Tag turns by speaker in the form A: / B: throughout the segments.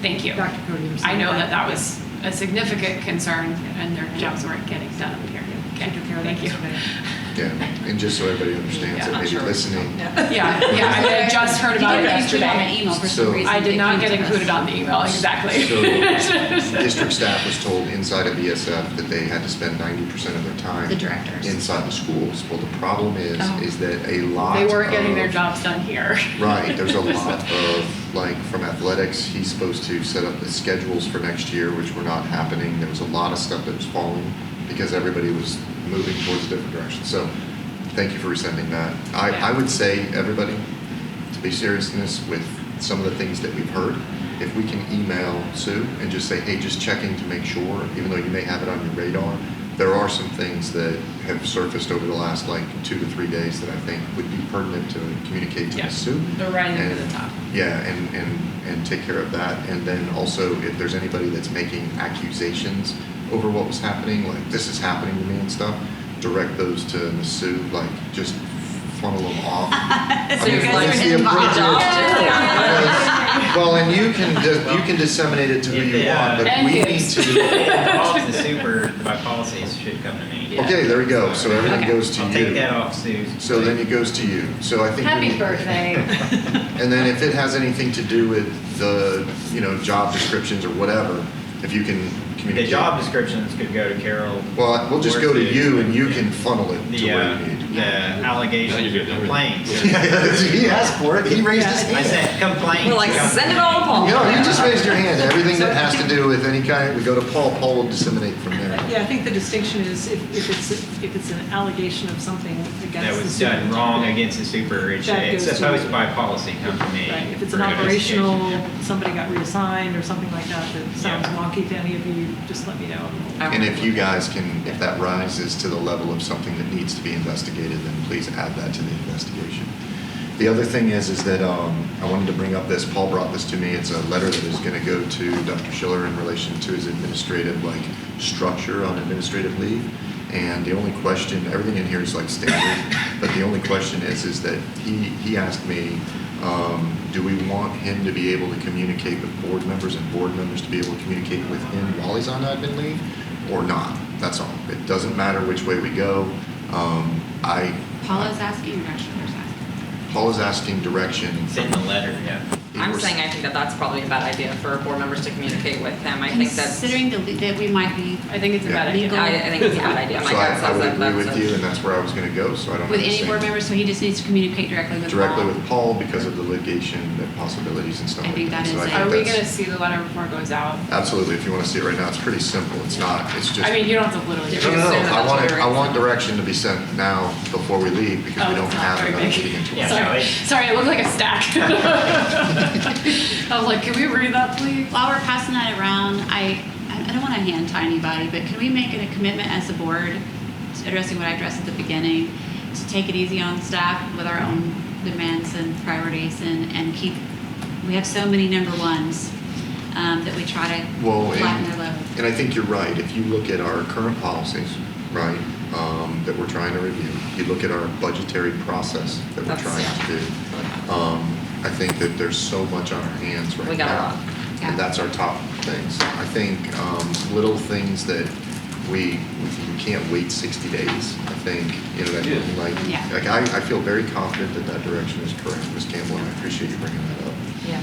A: Thank you.
B: Dr. Cody was
A: I
B: saying
A: know that
B: that.
A: that was a significant concern, and their jobs weren't getting done up here.
B: She
A: Okay,
B: took care of that
A: thank you.
B: yesterday.
C: Yeah, and just so everybody understands
A: Yeah,
C: that
A: I'm
C: maybe
A: sure.
C: listening,
A: Yeah, yeah, I had just heard about it
D: You didn't
A: yesterday.
D: include on the email for
C: So-
D: some reason.
A: I
D: It
A: did not
D: came
A: get
D: to us.
A: included on the email, exactly.
C: district staff was told inside of ESF that they had to spend ninety percent of their time
D: The directors.
C: inside the schools. Well, the problem is,
D: Oh.
C: is that a lot
A: They weren't getting their
C: of-
A: jobs done here.
C: Right, there's a lot of, like, from athletics, he's supposed to set up the schedules for next year, which were not happening. There was a lot of stuff that was falling because everybody was moving towards a different direction. So, thank you for resending that. I, I would say, everybody, to be serious in this, with some of the things that we've heard, if we can email Sue and just say, hey, just checking to make sure, even though you may have it on your radar, there are some things that have surfaced over the last, like, two to three days that I think would be pertinent to communicate to
A: Yeah.
C: Ms. Sue.
A: They're rising to the
C: And-
A: top.
C: Yeah, and, and, and take care of that. And then also, if there's anybody that's making accusations over what was happening, like this is happening to me and stuff, direct those to Ms. Sue, like just funnel them off. I
D: So
C: mean,
D: you guys
C: that's
D: are
C: the
D: involved.
C: appropriate- because- Well, and you can, dis- you can disseminate it to who you
E: Yeah.
C: want, but
A: And
C: we need
A: who's.
C: to.
E: All of the super, my policies should come to me.
C: Okay, there we go. So everything
A: Okay.
C: goes to
E: I'll take that
C: you.
E: off Sue's.
C: So then it goes to you. So I think. we
D: Happy
C: need-
D: birthday.
C: And then if it has anything to do with the, you know, job descriptions or whatever, if you can
E: The
C: communicate.
E: job descriptions could go to Carol.
C: Well, we'll just go to you and you can funnel it to
E: The,
C: where
E: uh,
C: you need.
E: the allegations, or complaints.
C: He asked for it, he raised his
E: I
C: hand.
E: said complaints.
D: We're like,
E: come-
D: send it all to Paul.
C: No, you just raised your hand, everything that has to do with any kind, we go to Paul, Paul will disseminate from there.
B: Yeah, I think the distinction is if if it's, if it's an allegation of something against.
E: That
B: the
E: was done
B: superintendent.
E: wrong against the super, it should-
B: That
E: it's
B: goes to-
E: supposed by policy, come to me.
B: Right, if it's
E: for
B: an
E: investigation.
B: operational, somebody got reassigned or something like that that sounds
E: Yeah.
B: wonky to any of you, just let me know.
C: And if you guys can, if that rises to the level of something that needs to be investigated, then please add that to the investigation. The other thing is, is that um, I wanted to bring up this, Paul brought this to me, it's a letter that is going to go to Dr. Schiller in relation to his administrative, like, structure on administrative leave. And the only question, everything in here is like standard, but the only question is, is that he, he asked me, um, do we want him to be able to communicate with board members and board members to be able to communicate with him while he's on admin leave or not? That's all. It doesn't matter which way we go. Um, I.
D: Paula's asking, or actually, there's asking.
C: Paul is asking direction.
E: Send the letter, yeah.
F: I'm saying I think that that's probably a bad idea for board members to communicate with them. I think that's, I,
D: Considering the le- that we might be
A: I think it's a bad
D: Legal.
A: idea.
F: I think it's a bad idea.
C: So
F: My
C: I,
F: gut
C: I
F: says
C: would
F: that
C: agree
F: that's
C: with you,
F: a.
C: and that's where I was gonna go, so I don't.
D: with
C: have the
D: any
C: same-
D: board member, so he just needs to communicate directly with
C: Directly
D: Paul.
C: with Paul because of the litigation and possibilities and stuff
D: I
C: like that.
D: think that
C: So
D: is it.
C: think
A: Are we
C: that's-
A: gonna see the letter before it goes out?
C: Absolutely. If you wanna see it right now, it's pretty simple. It's not, it's just.
A: I mean, you don't have to literally.
C: No,
A: do
C: no,
A: it.
C: no.
F: Send it
C: I
F: out
C: want,
F: to
C: I want direction to be sent now before we leave because
A: Oh,
C: we don't
A: it's not
C: have
A: very
C: another
A: big.
C: meeting until.
E: Yeah, no,
A: Sorry,
E: it-
A: sorry, it looked like a stack. I was like, can we read that, please?
D: While we're passing that around, I, I don't want to hand tie anybody, but can we make it a commitment as a board, addressing what I addressed at the beginning, to take it easy on staff with our own demands and priorities and, and keep, we have so many number ones um, that we try to
C: Well,
D: flatten their level.
C: and, and I think you're right. If you look at our current policies, right, um, that we're trying to review, you look at our budgetary process that we're
F: That's-
C: trying
F: yeah.
C: to do. Um, I think that there's so much on our hands right now.
F: We got a lot.
D: Yeah.
C: And that's our top things. I think, um, little things that we, we can't wait sixty days, I think, you know, that, like,
D: Yeah.
C: like, I, I feel very confident that that direction is correct, Ms. Campbell, and I appreciate you bringing that up.
F: Yeah.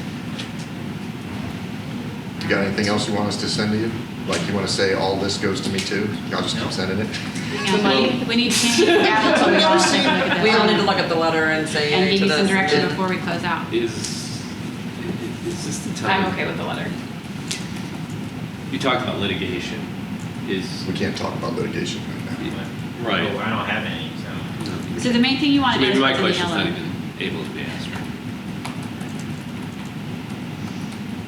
C: You got anything else you want us to send to you? Like you want to say, all this goes to me too? I'll just keep sending it?
D: Hang on, we need- we need to change the gavel till we all take a look at
F: We all need to
D: this
F: look at the letter and say.
D: and
F: yay
D: give
F: to
D: you some
F: this.
D: direction
F: And-
D: before we close out.
G: Is, is this the time?
A: I'm okay with the letter.
G: You talked about litigation. Is,
C: We can't talk about litigation right now.
G: Right.
E: Oh, I don't have any, so.
D: So the main thing you want
G: So
D: to know
G: maybe
D: is
G: my
D: what's in the
G: question's not
D: yellow.
G: even able to be answered.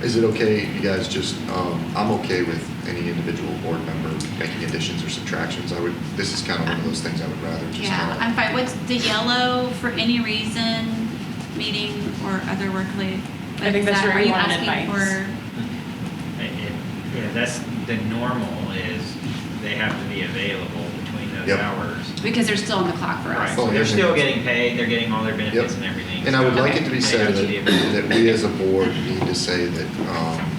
C: Is it okay, you guys, just, um, I'm okay with any individual board member making additions or subtractions. I would, this is kind of one of those things I would rather just.
D: Yeah,
C: not-
D: I'm fine. What's the yellow for any reason, meeting or other work related?
A: I think that's where
D: Are
A: you
D: you
A: wanted
D: asking
A: advice.
D: for?
E: It- it- Yeah, that's, the normal is they have to be available between those
C: Yep.
E: hours.
D: Because they're still on the clock for
E: Right,
D: us.
C: Oh,
E: so
C: yeah.
E: they're still getting paid, they're getting all their benefits
C: Yep.
E: and everything.
C: And I would
E: so
C: like it to
E: they
C: be said
E: have to be
C: that,
E: available.
C: that we as a board need to say that, um,